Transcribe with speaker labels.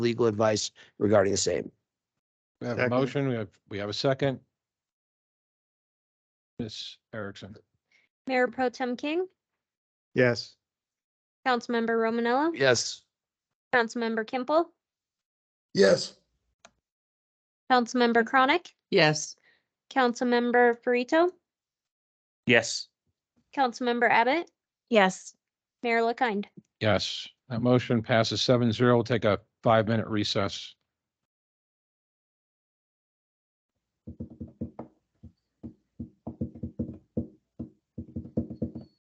Speaker 1: legal advice regarding the same.
Speaker 2: We have a
Speaker 3: Second.
Speaker 2: motion, we have, we have a second. Ms. Erickson,
Speaker 4: Mayor Pro Tem King,
Speaker 3: Yes.
Speaker 4: Councilmember Romanella,
Speaker 1: Yes,
Speaker 4: Councilmember Kimpel,
Speaker 5: Yes.
Speaker 4: Councilmember Chronic,
Speaker 6: Yes,
Speaker 4: Councilmember Farito,
Speaker 7: Yes.
Speaker 4: Councilmember Abbott,
Speaker 8: Yes.
Speaker 4: Mayor LaKind.
Speaker 2: yes, that motion passes seven zero. We'll Take a five-minute recess.